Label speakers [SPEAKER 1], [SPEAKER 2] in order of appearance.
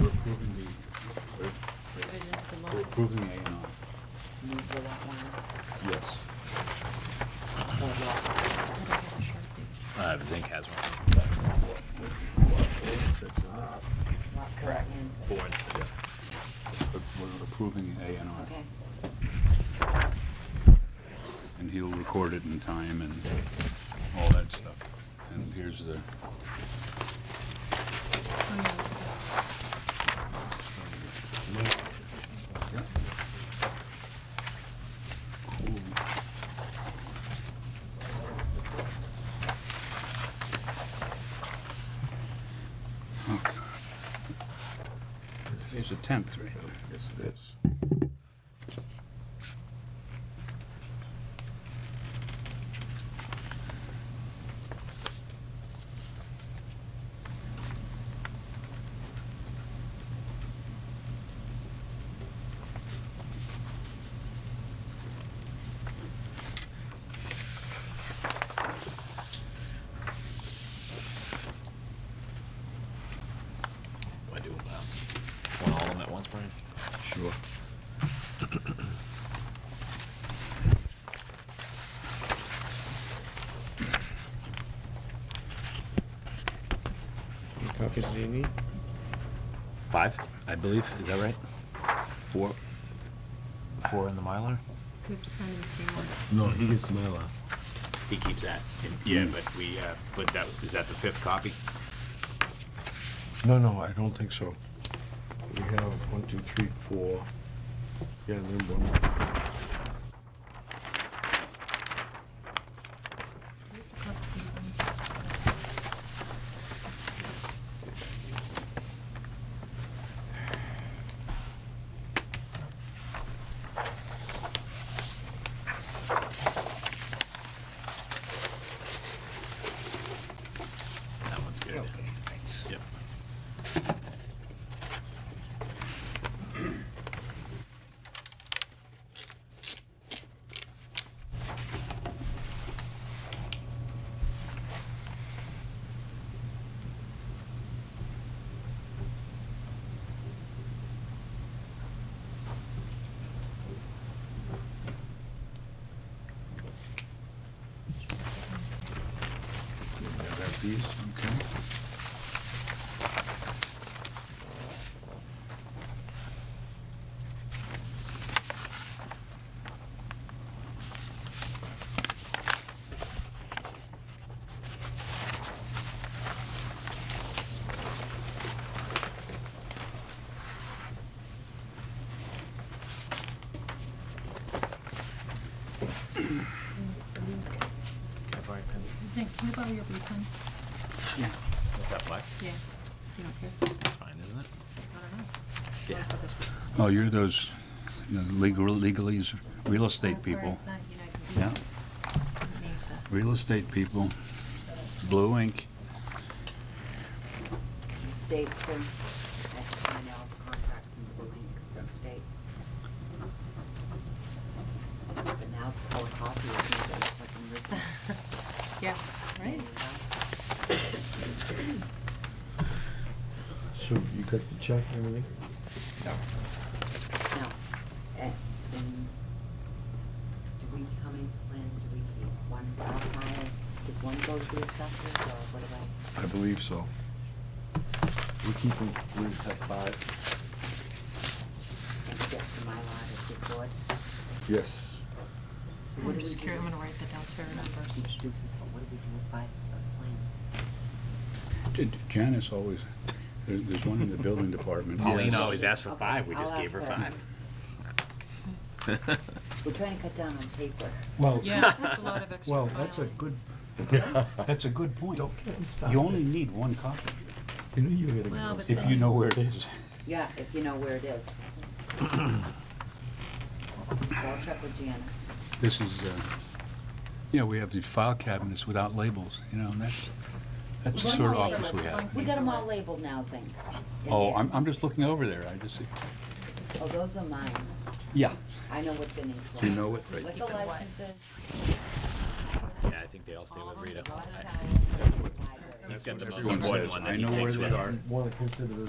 [SPEAKER 1] We're approving the, we're- we're approving A and R.
[SPEAKER 2] Move the lot one,
[SPEAKER 1] Yes.
[SPEAKER 2] or lots.
[SPEAKER 3] Uh, Zink has one.
[SPEAKER 2] Lot correct.
[SPEAKER 3] Four and six.
[SPEAKER 1] But We're approving A and R.
[SPEAKER 2] Okay.
[SPEAKER 1] And he'll record it in time and all that stuff. And here's the, yeah. Cool. Oh, God. Today's the tenth, right?
[SPEAKER 4] Yes, it is.
[SPEAKER 3] Do I do, um, want all of them at once, Brian?
[SPEAKER 4] Sure.
[SPEAKER 5] How many copies do you need?
[SPEAKER 3] Five, I believe, is that right? Four. Four in the Mylar?
[SPEAKER 6] We have to sign the same one.
[SPEAKER 4] No, he gets my lot.
[SPEAKER 3] He keeps that. Yeah, but we, uh, but that, is that the fifth copy?
[SPEAKER 4] No, no, I don't think so. We have one, two, three, four. Yeah, then one. more.
[SPEAKER 6] We have to copy these ones.
[SPEAKER 3] That one's good.
[SPEAKER 2] Okay, thanks.
[SPEAKER 3] Yep.
[SPEAKER 1] Grab these, okay.
[SPEAKER 6] Zink, can you borrow your blue pen?
[SPEAKER 3] What's that, black?
[SPEAKER 6] Yeah. You don't care?
[SPEAKER 3] That's fine, isn't it?
[SPEAKER 6] I don't know.
[SPEAKER 3] Yeah.
[SPEAKER 6] Unless others want this.
[SPEAKER 1] Oh, you're those you know, legal, legalese, real
[SPEAKER 6] Oh,
[SPEAKER 1] estate
[SPEAKER 6] sorry,
[SPEAKER 1] people.
[SPEAKER 6] it's not United.
[SPEAKER 1] Yeah.
[SPEAKER 6] Didn't mean to.
[SPEAKER 1] Real estate people. Blue ink.
[SPEAKER 2] State too. I have to sign all the contracts in the link, the state. But now the color copy is made like fucking written.
[SPEAKER 6] Yeah, right?
[SPEAKER 4] So you got the check and everything?
[SPEAKER 2] Now, eh, and do we, how many plans do we keep? One for our file? Does one go to the assessors or what about?
[SPEAKER 4] I believe so. We keep them, we have five.
[SPEAKER 2] And it gets to my lot as the board?
[SPEAKER 4] Yes.
[SPEAKER 2] So what
[SPEAKER 6] I'm
[SPEAKER 2] do we
[SPEAKER 6] just
[SPEAKER 2] do?
[SPEAKER 6] curious, I'm gonna write that down so I remember.
[SPEAKER 2] Each do, what do we do with five uh, plans?
[SPEAKER 1] J- Janice always, there- there's one in the building department.
[SPEAKER 3] Pauline
[SPEAKER 1] Yes.
[SPEAKER 3] always asked for
[SPEAKER 2] Okay,
[SPEAKER 3] five, we
[SPEAKER 2] I'll
[SPEAKER 3] just gave
[SPEAKER 2] ask
[SPEAKER 3] her
[SPEAKER 2] her.
[SPEAKER 3] five.
[SPEAKER 2] We're trying to cut down on paper.
[SPEAKER 1] Well,
[SPEAKER 6] Yeah, that's a lot of extra
[SPEAKER 1] well, that's a
[SPEAKER 6] filing.
[SPEAKER 1] good, that's a good point.
[SPEAKER 4] get me started.
[SPEAKER 1] You only need one copy
[SPEAKER 4] You knew you were gonna.
[SPEAKER 6] Well,
[SPEAKER 4] go.
[SPEAKER 6] but
[SPEAKER 1] if you know where it is.
[SPEAKER 2] Yeah, if you know where it is. So I'll check with Janice.
[SPEAKER 1] This is, uh, you know, we have these file cabinets without labels, you know, and that's, that's the
[SPEAKER 2] One
[SPEAKER 1] sort of
[SPEAKER 2] more
[SPEAKER 1] office we
[SPEAKER 2] label.
[SPEAKER 1] have.
[SPEAKER 2] We got them all labeled now, Zink. in
[SPEAKER 1] Oh,
[SPEAKER 2] there.
[SPEAKER 1] I'm, I'm just looking over there, I just see.
[SPEAKER 2] Oh, those are mine.
[SPEAKER 1] Yeah.
[SPEAKER 2] I know what's in each one.
[SPEAKER 1] Do you know it? Right.
[SPEAKER 2] Liquor licenses.
[SPEAKER 3] Yeah, I think they all stay
[SPEAKER 2] all of
[SPEAKER 3] with
[SPEAKER 2] them,
[SPEAKER 3] Rita.
[SPEAKER 2] the water
[SPEAKER 3] I-
[SPEAKER 2] tower, library.
[SPEAKER 3] He's got the most
[SPEAKER 1] Everyone
[SPEAKER 3] important
[SPEAKER 1] says,
[SPEAKER 3] one
[SPEAKER 1] "I
[SPEAKER 3] that he
[SPEAKER 1] know where
[SPEAKER 3] takes
[SPEAKER 1] they
[SPEAKER 3] with
[SPEAKER 1] are."
[SPEAKER 3] him.
[SPEAKER 4] Wanna consider this